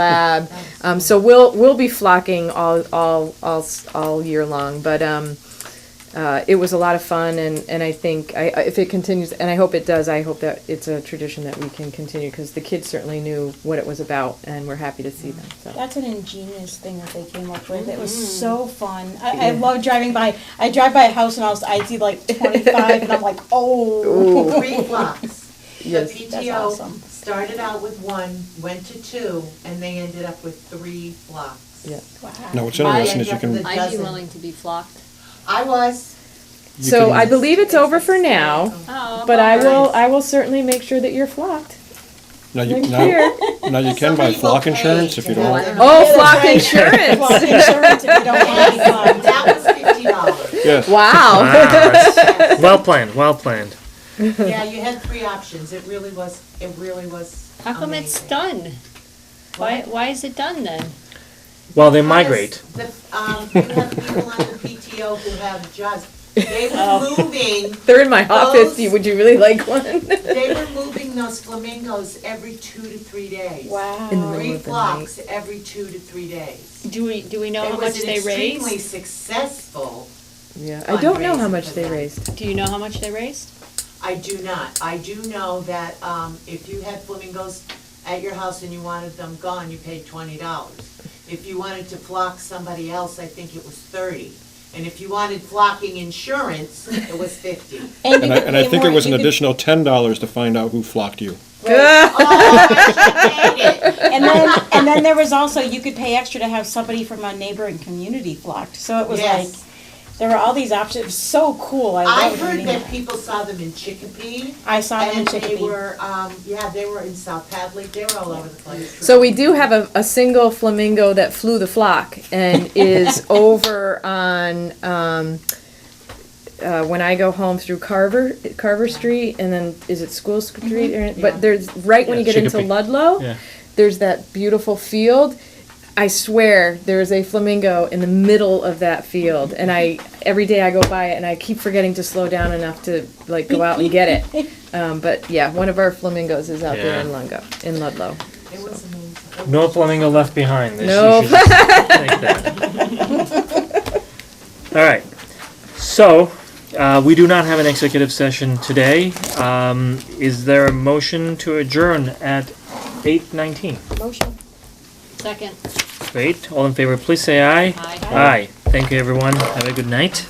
lab. Um, so we'll, we'll be flocking all, all, all, s- all year long, but, um, uh, it was a lot of fun and, and I think, I, I- if it continues, and I hope it does, I hope that it's a tradition that we can continue, because the kids certainly knew what it was about and we're happy to see them, so. That's an ingenious thing that they came up with. It was Mm-hmm. so fun. I, I love driving by. I drive by a house and I, was, I see like 25 and I'm like, oh. Three blocks. Yes. The That's PTO awesome. started out with one, went to two, and they ended up with three blocks. Yeah. Wow. No, what's interesting is I you end can, up with a I'd be dozen. willing to be flocked. I was, you So can- I believe it's over for now, Oh, but I will, nice. I will certainly make sure that you're flocked now you, next now, year. now you can Some buy people flock pay insurance if to you don't have want. them. Oh, flock right. insurance, Well, insurance if you Oh. don't want it. And That was fifty dollars. Yes. wow. Ah, well planned, well planned. Yeah, you had three options. It really was, it really was How come it's amazing. done? Why, why is it done then? Well, they Because migrate. the- um, You have people on the PTO who have just, they Oh. were moving They're in my hot Those- fifty, would you really like one? They were moving those flamingos every two to three days. Wow. Three flocks every two to three days. Do we, do we know It how was much an they Extremely raised? successful. Yeah, I don't know how fundraising much for they them. raised. Do you know how much they raised? I do not. I do know that um, if you had flamingos at your house and you wanted them gone, you paid twenty dollars. If you wanted to flock somebody else, I think it was thirty. And if you wanted flocking insurance, it was fifty. And, you And I, could and I pay think more- it was an you could- additional ten dollars to find out who flocked you. Oh, I should have paid it. And then, and then there was also, you could pay extra to have somebody from a neighboring community flocked. So it was Yes. like, there were all these options. It was so cool. I, I loved heard reading that people saw them in Chicopee. I saw them in And they Chicopee. were, um, yeah, they were in South Hadley, they were all over the place. So we do have a, a single flamingo that flew the flock and is over on, um, uh, when I go home through Carver, Carver Street and then, is it School Street? or- Yeah. But there's, right when you Yeah, get into Chicopee. Ludlow, Yeah. there's that beautiful field. I swear, there is a flamingo in the middle of that field and I, every day I go by it and I keep forgetting to slow down enough to like go out and get it. Um, but yeah, one of our flamingos is out there in Yeah. Lungo, in Ludlow. It was amazing. No flamingo left behind. This- you No. should just take that. All right. So uh, we do not have an executive session today. Um, is there a motion to adjourn at eight nineteen? Motion. Second, Great. All in favor, please say aye. aye. Aye. Thank you, everyone. Have a good night.